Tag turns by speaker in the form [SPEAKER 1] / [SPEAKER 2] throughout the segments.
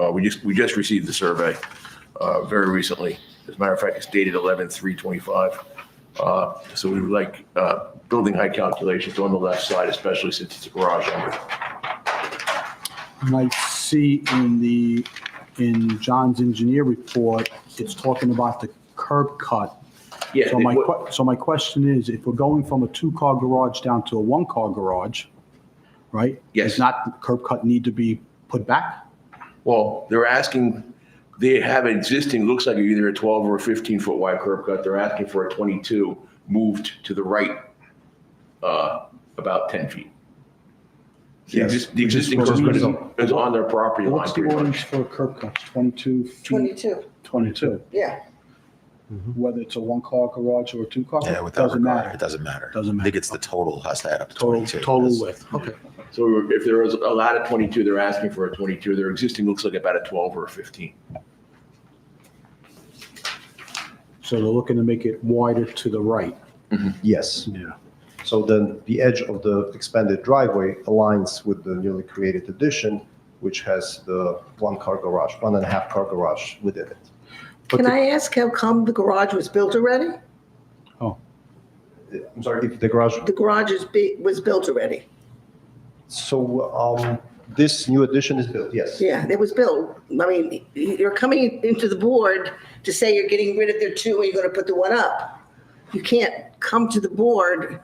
[SPEAKER 1] Uh, we just, we just received the survey, uh, very recently. As a matter of fact, it's dated eleven three twenty-five. Uh, so we would like, uh, building height calculations on the left side, especially since it's a garage under.
[SPEAKER 2] And I see in the, in John's engineer report, it's talking about the curb cut.
[SPEAKER 1] Yeah,
[SPEAKER 2] So my,
[SPEAKER 1] what-
[SPEAKER 2] que- so my question is, if we're going from a two-car garage down to a one-car garage, right?
[SPEAKER 1] Yes.
[SPEAKER 2] Does not the curb cut need to be put back?
[SPEAKER 1] Well, they're asking, they have an existing, looks like either a 12 or a 15 foot wide curb cut. They're asking for a 22 moved to the right uh, about 10 feet. The
[SPEAKER 2] Yes,
[SPEAKER 1] exist- the
[SPEAKER 2] which is
[SPEAKER 1] existing
[SPEAKER 2] what
[SPEAKER 1] curb
[SPEAKER 2] it
[SPEAKER 1] cut
[SPEAKER 2] is.
[SPEAKER 1] is- is on their property line
[SPEAKER 2] What's the
[SPEAKER 1] pretty
[SPEAKER 2] ordinance
[SPEAKER 1] much.
[SPEAKER 2] for curb cuts, 22 feet?
[SPEAKER 3] 22,
[SPEAKER 2] 22.
[SPEAKER 3] yeah.
[SPEAKER 2] Whether it's a one-car garage or a two-car?
[SPEAKER 4] Yeah, without
[SPEAKER 2] Doesn't
[SPEAKER 4] regard,
[SPEAKER 2] matter.
[SPEAKER 4] it doesn't matter.
[SPEAKER 2] Doesn't
[SPEAKER 4] I
[SPEAKER 2] matter.
[SPEAKER 4] think it's the total has to add up to
[SPEAKER 2] Total,
[SPEAKER 4] 22.
[SPEAKER 2] total
[SPEAKER 4] That's-
[SPEAKER 2] width, okay.
[SPEAKER 1] So if there was a lot of 22, they're asking for a 22. Their existing looks like about a 12 or a 15.
[SPEAKER 2] So they're looking to make it wider to the right.
[SPEAKER 5] Yes.
[SPEAKER 2] Yeah.
[SPEAKER 5] So then the edge of the expanded driveway aligns with the newly created addition, which has the one-car garage, one and a half car garage within it.
[SPEAKER 2] But
[SPEAKER 3] Can
[SPEAKER 2] the-
[SPEAKER 3] I ask how come the garage was built already?
[SPEAKER 5] I'm sorry, if the garage,
[SPEAKER 3] The garage is, be- was built already.
[SPEAKER 5] so um, this new addition is built, yes.
[SPEAKER 3] Yeah, it was built. I mean, you're coming into the board to say you're getting rid of the two and you're going to put the one up. You can't come to the board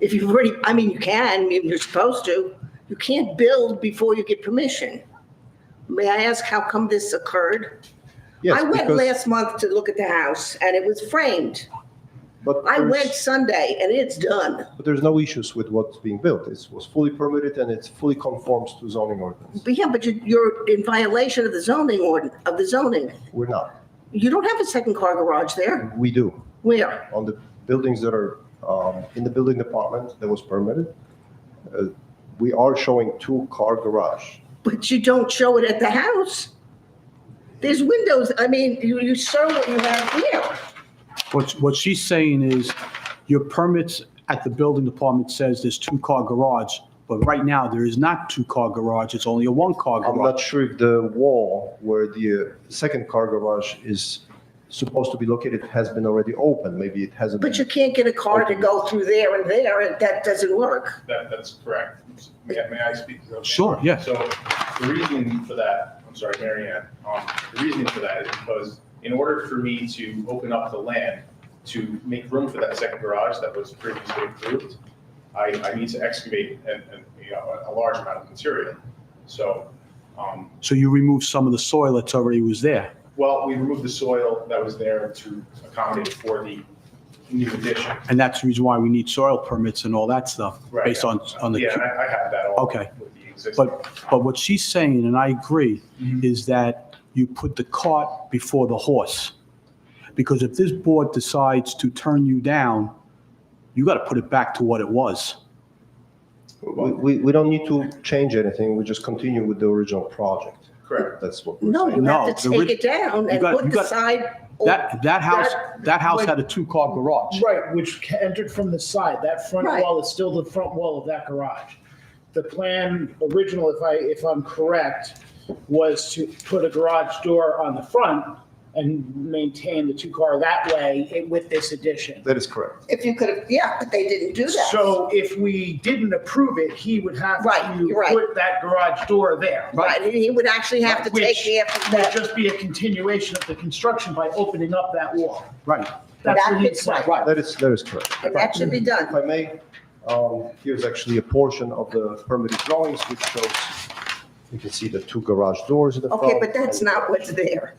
[SPEAKER 3] if you've already, I mean, you can, you're supposed to. You can't build before you get permission. May I ask how come this occurred?
[SPEAKER 5] Yes,
[SPEAKER 3] I went
[SPEAKER 5] because-
[SPEAKER 3] last month to look at the house and it was framed.
[SPEAKER 5] but
[SPEAKER 3] I
[SPEAKER 5] there's-
[SPEAKER 3] went Sunday and it's done.
[SPEAKER 5] But there's no issues with what's being built. It was fully permitted and it fully conforms to zoning ordinance.
[SPEAKER 3] But yeah, but you- you're in violation of the zoning ordin, of the zoning.
[SPEAKER 5] We're not.
[SPEAKER 3] You don't have a second car garage there.
[SPEAKER 5] We do.
[SPEAKER 3] Where?
[SPEAKER 5] on the buildings that are um, in the building department that was permitted, uh, we are showing two-car garage.
[SPEAKER 3] But you don't show it at the house. There's windows, I mean, you, you show what you have here.
[SPEAKER 2] What, what she's saying is your permits at the building department says there's two-car garage, but right now there is not two-car garage, it's only a one-car
[SPEAKER 5] I'm not
[SPEAKER 2] garage.
[SPEAKER 5] sure if the wall where the uh, second car garage is supposed to be located has been already opened. Maybe it hasn't.
[SPEAKER 3] But you can't get a car to go through there and there, and that doesn't work.
[SPEAKER 6] That, that's correct. May may I speak? Is that okay?
[SPEAKER 2] Sure, yes.
[SPEAKER 6] So the reason for that, I'm sorry, Mary Ann, um, the reason for that is because in order for me to open up the land to make room for that second garage that was previously approved, I, I need to excavate and, and, you know, a a large amount of material. So, um,
[SPEAKER 2] So you remove some of the soil that's already was there.
[SPEAKER 6] well, we removed the soil that was there to accommodate for the new addition.
[SPEAKER 2] And that's the reason why we need soil permits and all that stuff,
[SPEAKER 6] Right.
[SPEAKER 2] based on, on
[SPEAKER 6] Yeah,
[SPEAKER 2] the,
[SPEAKER 6] I, I have that all.
[SPEAKER 2] Okay.
[SPEAKER 6] With the existing.
[SPEAKER 2] but, but what she's saying, and I agree,
[SPEAKER 6] Mm-hmm.
[SPEAKER 2] is that you put the cart before the horse. Because if this board decides to turn you down, you got to put it back to what it was.
[SPEAKER 5] We, we, we don't need to change anything. We just continue with the original project.
[SPEAKER 6] Correct.
[SPEAKER 5] That's what. we're
[SPEAKER 3] No,
[SPEAKER 5] saying.
[SPEAKER 3] you have to
[SPEAKER 2] No, the
[SPEAKER 3] take
[SPEAKER 2] ri-
[SPEAKER 3] it down
[SPEAKER 2] you
[SPEAKER 3] and
[SPEAKER 2] got-
[SPEAKER 3] put
[SPEAKER 2] you
[SPEAKER 3] the
[SPEAKER 2] got-
[SPEAKER 3] side. or-
[SPEAKER 2] That, that house,
[SPEAKER 3] That-
[SPEAKER 2] that house had a two-car garage.
[SPEAKER 7] Right, which ca- entered from the side. That front
[SPEAKER 3] Right.
[SPEAKER 7] wall is still the front wall of that garage. The plan original, if I, if I'm correct, was to put a garage door on the front and maintain the two car that way i- with this addition.
[SPEAKER 5] That is correct.
[SPEAKER 3] If you could have, yeah, but they didn't do that.
[SPEAKER 7] So if we didn't approve it, he would have
[SPEAKER 3] Right,
[SPEAKER 7] to
[SPEAKER 3] you're right.
[SPEAKER 7] put that garage door there.
[SPEAKER 3] Right, and he would actually have to take
[SPEAKER 7] Which
[SPEAKER 3] the, after
[SPEAKER 7] Would
[SPEAKER 3] that.
[SPEAKER 7] just be a continuation of the construction by opening up that wall.
[SPEAKER 2] Right.
[SPEAKER 7] That's
[SPEAKER 3] That
[SPEAKER 7] what he
[SPEAKER 3] is
[SPEAKER 7] said.
[SPEAKER 3] right.
[SPEAKER 5] That is, that is correct.
[SPEAKER 3] And that should be
[SPEAKER 5] If
[SPEAKER 3] done.
[SPEAKER 5] I may, um, here's actually a portion of the permitted drawings which shows, you can see the two garage doors in the front.
[SPEAKER 3] Okay,
[SPEAKER 2] Oh.
[SPEAKER 3] but that's not what's there.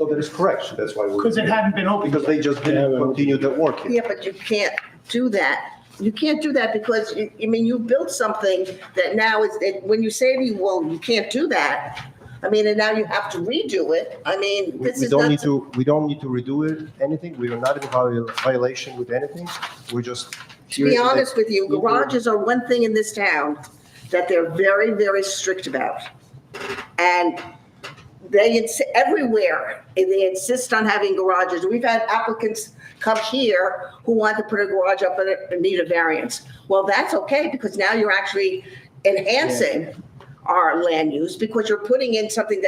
[SPEAKER 5] No, that is correct. That's why we're.
[SPEAKER 7] Because it hadn't been opened.
[SPEAKER 5] Because they just didn't continue the work. here.
[SPEAKER 3] Yeah, but you can't do that. You can't do that because, you- I mean, you built something that now is, that when you say to you, well, you can't do that. I mean, and now you have to redo it. I mean,
[SPEAKER 5] We
[SPEAKER 3] this
[SPEAKER 5] we
[SPEAKER 3] is
[SPEAKER 5] don't need
[SPEAKER 3] not,
[SPEAKER 5] to, we don't need to redo it, anything. We are not in viol- violation with anything. We're just.
[SPEAKER 3] to be honest with you, garages are one thing in this town that they're very, very strict about. And they, ins- everywhere, and they insist on having garages. We've had applicants come here who want to put a garage up and and need a variance. Well, that's okay, because now you're actually enhancing our land use, because you're putting in something that